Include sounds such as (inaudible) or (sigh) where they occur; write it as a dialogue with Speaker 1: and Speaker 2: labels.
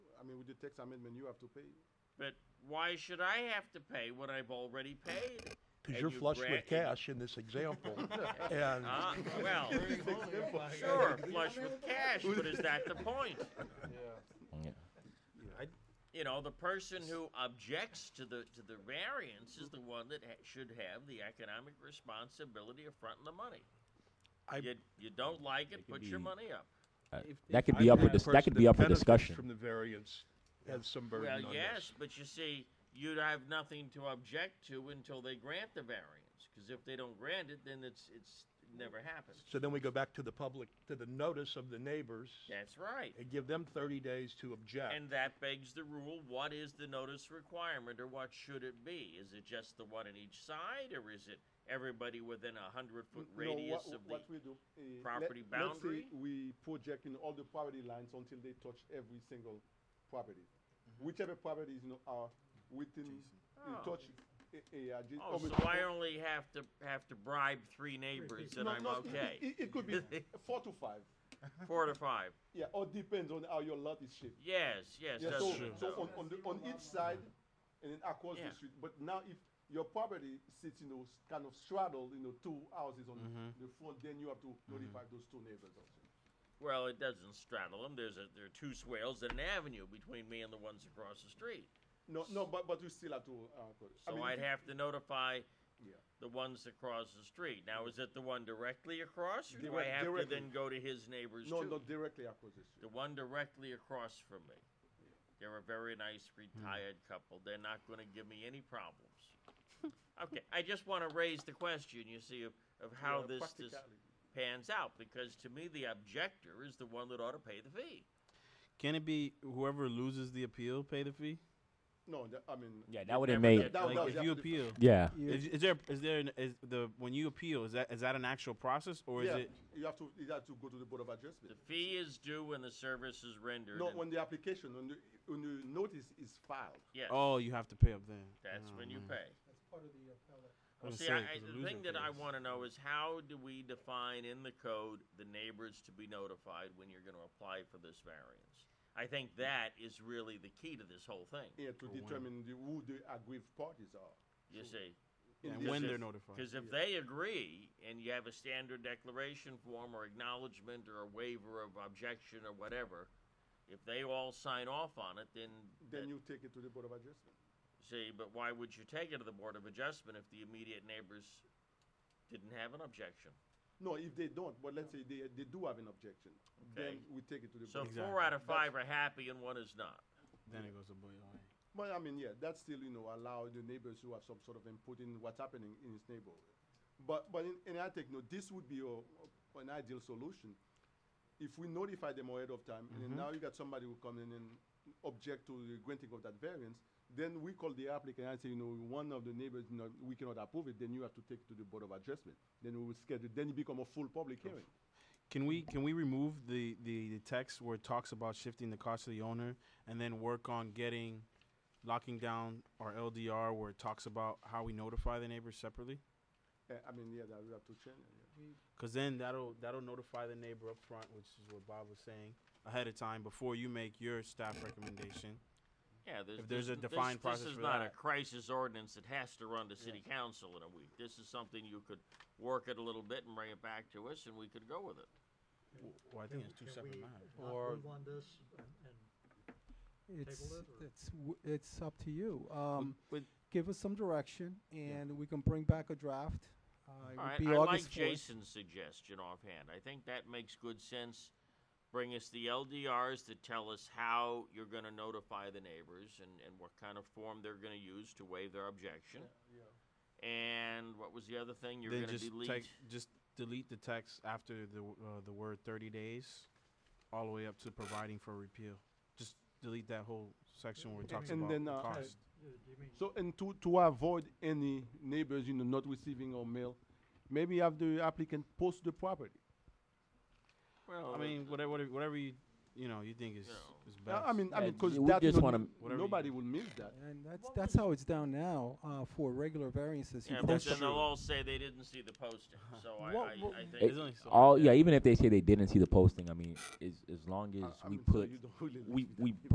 Speaker 1: the tax amendment, you have to pay.
Speaker 2: But why should I have to pay what I've already paid?
Speaker 3: because
Speaker 2: And
Speaker 3: you're
Speaker 2: you
Speaker 3: flush
Speaker 2: gra-
Speaker 3: with cash in this (laughs) example. and
Speaker 2: Uh,
Speaker 1: (laughs)
Speaker 2: well, sure, flush with cash, but is that the point?
Speaker 4: Yeah.
Speaker 2: You know, the person who objects to the to the variance is the one that ha- should have the economic responsibility of fronting the money.
Speaker 3: I-
Speaker 2: you you don't like it,
Speaker 4: could
Speaker 2: put your
Speaker 4: be-
Speaker 2: money up.
Speaker 4: That could be up for dis- that could be up for discussion.
Speaker 5: From the variance, have some burden
Speaker 2: Well,
Speaker 5: on
Speaker 2: yes,
Speaker 5: this.
Speaker 2: but you see, you'd have nothing to object to until they grant the variance. Because if they don't grant it, then it's it's it never happens.
Speaker 3: so then we go back to the public, to the notice of the neighbors,
Speaker 2: That's right.
Speaker 3: and give them 30 days to object.
Speaker 2: And that begs the rule, what is the notice requirement or what should it be? Is it just the one on each side or is it everybody within a hundred foot
Speaker 1: No,
Speaker 2: radius
Speaker 1: what-
Speaker 2: of
Speaker 1: what
Speaker 2: the?
Speaker 1: we do, uh, let-
Speaker 2: property boundary?
Speaker 1: Let's say we project in all the property lines until they touch every single property. Whichever properties, you know, are uh, within, in
Speaker 2: Mm-hmm. Oh.
Speaker 1: touch, a, a, adja-
Speaker 2: Oh, so
Speaker 1: almost-
Speaker 2: I only have to, have to bribe three neighbors and
Speaker 1: No,
Speaker 2: I'm
Speaker 1: no, It,
Speaker 2: okay?
Speaker 1: it- it could
Speaker 2: (laughs)
Speaker 1: be four to five,
Speaker 2: Four to five.
Speaker 1: yeah, all depends on how your lot is shaped.
Speaker 2: Yes, yes,
Speaker 1: Yeah,
Speaker 2: that's
Speaker 1: so,
Speaker 2: true.
Speaker 1: so on, on, the, on each side and then across
Speaker 2: Yeah.
Speaker 1: the street. But now if your property sits, you know, s- kind of straddled, you know, two houses on
Speaker 2: Mm-hmm.
Speaker 1: the front, then you have to notify those two neighbors also.
Speaker 2: Well, it doesn't straddle them. There's a, there are two swales and an avenue between me and the ones across the street.
Speaker 1: No, no, but, but you still have to, uh, put it. I
Speaker 2: So
Speaker 1: mean,
Speaker 2: I'd
Speaker 1: if-
Speaker 2: have to notify
Speaker 1: Yeah.
Speaker 2: the ones across the street. Now, is it the one directly across, or do I
Speaker 1: Direct-
Speaker 2: have to
Speaker 1: directly.
Speaker 2: then go to his neighbors
Speaker 1: No,
Speaker 2: too?
Speaker 1: not directly across the
Speaker 2: The
Speaker 1: street.
Speaker 2: one directly across from me. They're a very nice retired couple. They're not going to give me any
Speaker 1: (laughs)
Speaker 2: problems. okay, I just want to raise the question, you see, of, of how
Speaker 1: Yeah,
Speaker 2: this, this
Speaker 1: practicality.
Speaker 2: pans out, because to me, the objector is the one that ought to pay the fee.
Speaker 6: Can it be whoever loses the appeal pay the fee?
Speaker 1: No, that, I mean,
Speaker 4: Yeah, that would have
Speaker 2: never
Speaker 4: made.
Speaker 2: get-
Speaker 1: that,
Speaker 6: like
Speaker 1: that,
Speaker 6: if you appeal,
Speaker 4: Yeah.
Speaker 6: is, is there is there an, is the when you appeal is that is that an actual process or is
Speaker 1: yeah,
Speaker 6: it
Speaker 1: you have to, you have to go to the board of adjustment.
Speaker 2: The fee is due when the service is rendered.
Speaker 1: No,
Speaker 2: and
Speaker 1: when the application, when the, when the notice is filed.
Speaker 2: yes,
Speaker 6: oh you have to pay up then?
Speaker 2: that's
Speaker 6: Oh,
Speaker 2: when you
Speaker 1: Mm.
Speaker 6: man.
Speaker 2: pay. Well,
Speaker 6: gonna
Speaker 2: see,
Speaker 6: say,
Speaker 2: I, I,
Speaker 6: 'cause a
Speaker 2: the
Speaker 6: loser
Speaker 2: thing that I
Speaker 6: pays.
Speaker 2: want to know is how do we define in the code the neighbors to be notified when you're going to apply for this variance? I think that is really the key to this whole thing.
Speaker 1: Yeah, to determine the, who the aggrieved parties are.
Speaker 2: You see,
Speaker 1: In
Speaker 6: And
Speaker 1: this
Speaker 6: when
Speaker 1: case-
Speaker 6: they're notified.
Speaker 2: because if they agree and you have a standard declaration form or acknowledgement or a waiver of objection or whatever, if they all sign off on it, then
Speaker 1: Then
Speaker 2: that-
Speaker 1: you take it to the board of adjustment.
Speaker 2: see. But why would you take it to the board of adjustment if the immediate neighbors didn't have an objection?
Speaker 1: No, if they don't, but let's say they, they do have an objection, then
Speaker 2: Okay.
Speaker 1: we take it to the
Speaker 2: So
Speaker 1: board.
Speaker 2: four out of five are happy and one is not.
Speaker 6: Then it goes to boy. all right.
Speaker 1: But I mean, yeah, that's still, you know, allow the neighbors who have some sort of input in what's happening in his neighborhood. But, but in, in our take, no, this would be a, an ideal solution. If we notify them ahead of time, and then now you got somebody who come in and object to the granting of that variance, then we call the applicant and say, you know, one of the neighbors, you know, we cannot approve it, then you have to take it to the board of adjustment. Then we will schedule, then it become a full public hearing.
Speaker 6: Can we can we remove the, the, the text where it talks about shifting the cost to the owner and then work on getting locking down our LDR where it talks about how we notify the neighbors separately?
Speaker 1: Uh, I mean, yeah, that we have to change. it, yeah.
Speaker 6: Cause then that'll that'll notify the neighbor up front, which is what Bob was saying ahead of time before you make your staff recommendation.
Speaker 2: Yeah, there's,
Speaker 6: If there's
Speaker 2: this-
Speaker 6: a defined
Speaker 2: this,
Speaker 6: process
Speaker 2: This is
Speaker 6: for
Speaker 2: not
Speaker 6: that.
Speaker 2: a crisis ordinance that has to run to city council in a week. This is something you could work it a little bit and bring it back to us, and we could go with it.
Speaker 6: Well, I think it's two separate matters.
Speaker 7: Or move on this and, and
Speaker 8: It's,
Speaker 7: it, or-
Speaker 8: it's, w- it's up to you. Um,
Speaker 6: With-
Speaker 8: give us some direction and we can bring back a draft. Uh, it
Speaker 2: All
Speaker 8: would
Speaker 2: right,
Speaker 8: be
Speaker 2: I
Speaker 8: August
Speaker 2: like
Speaker 8: 4th.
Speaker 2: Jason's suggestion offhand. I think that makes good sense. Bring us the LDRs that tell us how you're going to notify the neighbors and, and what kind of form they're going to use to waive their
Speaker 7: uh,
Speaker 2: objection. And what was the other thing you're
Speaker 6: then
Speaker 2: going to
Speaker 6: just
Speaker 2: delete?
Speaker 6: take just delete the text after the uh, the word 30 days, all the way up to providing for repeal. Just delete that whole section where it talks
Speaker 1: And
Speaker 6: about
Speaker 1: then,
Speaker 6: the
Speaker 1: uh,
Speaker 6: cost.
Speaker 7: you you mean,
Speaker 1: So, and to, to avoid any neighbors, you know, not receiving our mail, maybe have the applicant post the property.
Speaker 2: well,
Speaker 6: I mean, whatever, whatever, whatever you you know you think is
Speaker 2: No.
Speaker 6: is
Speaker 1: Uh,
Speaker 6: best.
Speaker 1: I mean, I
Speaker 4: Yeah,
Speaker 1: mean, because
Speaker 4: we
Speaker 1: that,
Speaker 4: just
Speaker 1: no-
Speaker 4: wanna-
Speaker 6: Whatever you-
Speaker 1: nobody will miss that.
Speaker 8: And that's,
Speaker 7: What
Speaker 8: that's how it's down now, uh, for regular variances. You
Speaker 2: yeah, but
Speaker 8: post
Speaker 2: then
Speaker 8: them.
Speaker 2: they'll all say they didn't see the posting. So I,
Speaker 8: What-
Speaker 2: I,
Speaker 8: what-
Speaker 2: I think
Speaker 6: There's only so
Speaker 4: All
Speaker 6: much.
Speaker 4: yeah. Even if they say they didn't see the posting, I mean, as as long
Speaker 1: I-
Speaker 4: as
Speaker 1: I
Speaker 4: we
Speaker 1: mean, so
Speaker 4: put
Speaker 1: you don't really
Speaker 4: we
Speaker 1: like that.
Speaker 4: we